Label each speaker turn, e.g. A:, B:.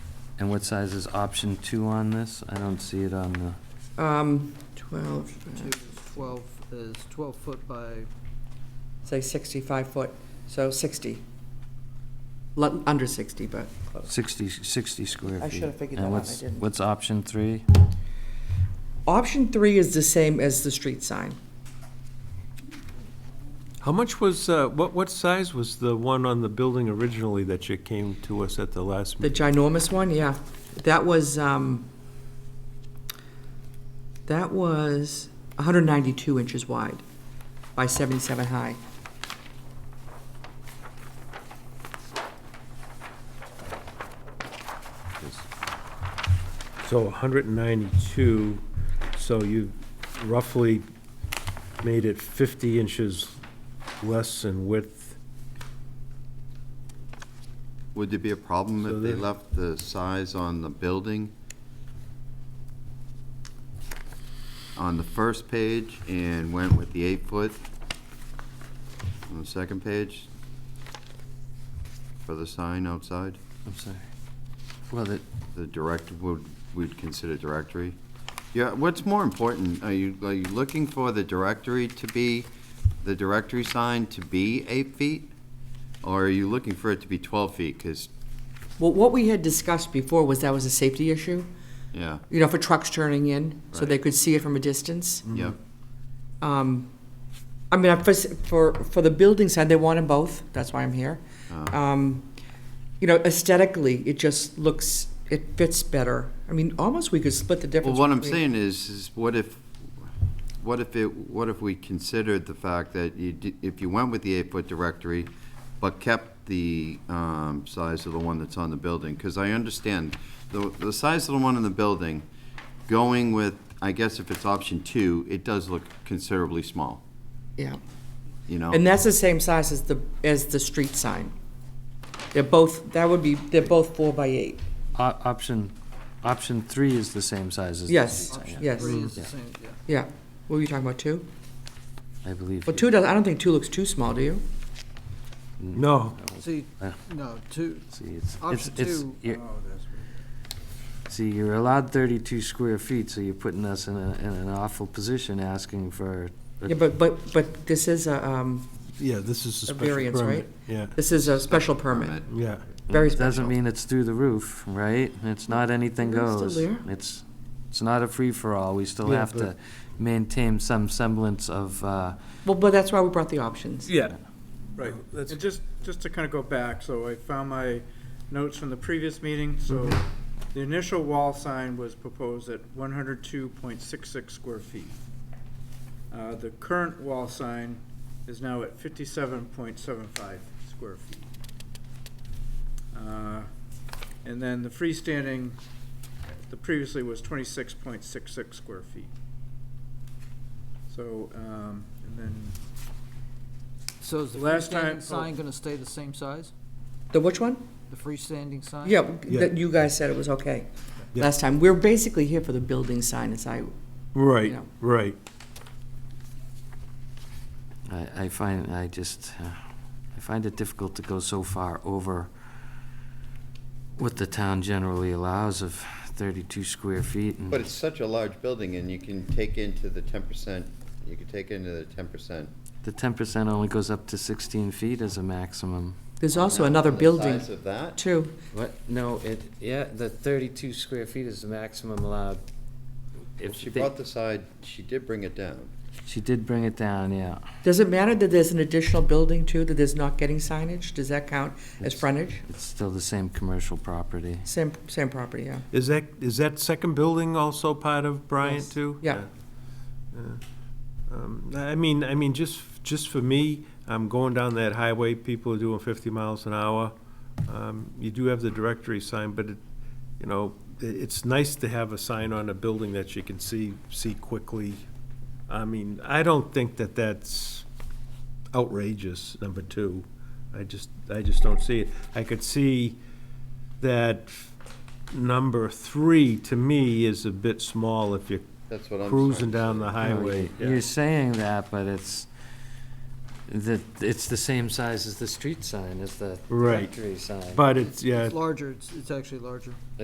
A: And what size is option two on this? I don't see it on the,
B: Um, 12,
C: Two is twelve, is twelve foot by,
B: say 65 foot, so 60. Lu- Under 60, but close.
A: 60, 60 square feet.
B: I should've figured that
A: And
B: out,
A: what's-
B: I didn't.
A: What's option three?
B: Option three is the same as the street sign.
D: How much was, uh, what, what size was the one on the building originally that you came to us at the last
B: The
D: meeting?
B: ginormous one, yeah. That was, um, that was 192 inches wide by 77 high.
D: So 192, so you roughly made it 50 inches less in width.
E: Would there be a problem
D: So
E: if they
D: then-
E: left the size on the building on the first page and went with the eight foot on the second page for the sign outside?
A: I'm sorry. Well, that,
E: The direct, would, we'd consider directory? Yeah, what's more important, are you, are you looking for the directory to be, the directory sign to be eight feet? Or are you looking for it to be twelve feet, because,
B: Well, what we had discussed before was that was a safety issue,
E: yeah,
B: you know, for trucks turning in, so they
E: Right.
B: could see it from a distance.
E: yeah.
B: Um, I mean, I- for, s- for, for the building side, they wanted both, that's why I'm here.
E: Ah.
B: Um, You know, aesthetically, it just looks, it fits better. I mean, almost we could split the
E: Well,
B: difference.
E: what I'm
B: between-
E: saying is, is what if, what if it, what if we considered the fact that you, di- if you went with the eight-foot directory, but kept the um, size of the one that's on the building? Because I understand, the, the size of the one in the building, going with, I guess if it's option two, it does look considerably small,
B: Yeah,
E: you know?
B: and that's the same size as the, as the street sign. They're both, that would be, they're both four by eight.
A: op- option, option three is the same size as. the
B: Yes,
A: street sign, yeah.
B: yes,
C: three is the
A: Yeah.
C: same, yeah.
B: yeah. What were you talking about, two?
A: I believe.
B: Well,
A: you-
B: two does, I don't think two looks too small, do you?
D: No,
C: See,
A: Oh. Yeah.
C: no, two,
A: See, it's, it's,
C: option
A: it's,
C: two.
A: you're-
C: oh, that's right.
A: see, you're allowed 32 square feet, so you're putting us in a, in an awful position asking for. a-
B: Yeah, but, but, but this is a, um,
D: yeah, this is a
B: A
D: special
B: variance,
D: permit. Yeah,
B: this is a special permit.
E: Permit.
D: yeah.
B: Very
A: Doesn't
B: special.
A: mean it's through the roof, right? It's not anything
B: It's still
A: goes.
B: there.
A: It's, it's not a free-for-all. We still
D: Yeah,
A: have to
D: but-
A: maintain some semblance of, uh,
B: Well, but that's why we brought the options.
F: Yeah,
D: Right.
F: Um, and just, just to kind of go back, so I found my notes from the previous meeting, so the initial wall sign was proposed at one hundred two point six six square feet. Uh, the current wall sign is now at fifty-seven point seven five square feet. Uh, And then the freestanding, the previously was twenty-six point six six square feet. So, um, and then
C: So is the
F: Last time-
C: freestanding sign gonna stay the same size,
B: The which one?
C: the freestanding sign?
B: Yeah, that you guys said it was okay
D: Yeah.
B: last time. We're basically here for the building sign, as I,
D: Right,
B: Yeah.
D: right.
A: I, I find, I just, uh, I find it difficult to go so far over what the town generally allows of thirty-two square feet and.
E: But it's such a large building, and you can take into the ten percent, you could take into the ten percent.
A: The ten percent only goes up to sixteen feet as a maximum.
B: there's also another building,
E: Oh, Size of that?
B: too.
A: What? No, it, yeah, the thirty-two square feet is the maximum allowed.
E: Well, She brought the side, she did bring it down.
A: She did bring it down, yeah.
B: Does it matter that there's an additional building, too, that is not getting signage? Does that count as
A: It's-
B: frontage?
A: It's still the same commercial property.
B: Same, same property, yeah.
D: Is that, is that second building also part of Bryant too?
B: Yeah.
D: Yeah. Um, I mean, I mean, just, just for me, I'm going down that highway, people are doing fifty miles an hour. Um, You do have the directory sign, but it, you know, i- it's nice to have a sign on a building that you can see, see quickly. I mean, I don't think that that's outrageous, number two. I just, I just don't see it. I could see that number three, to me, is a bit small if you're
E: That's what I'm.
D: cruising
E: sorry.
D: down the highway.
A: You're saying that, but it's, that, it's the same size as the street sign, as the
D: Right.
A: factory sign.
D: But it's, yeah,
C: It's larger, it's, it's actually larger.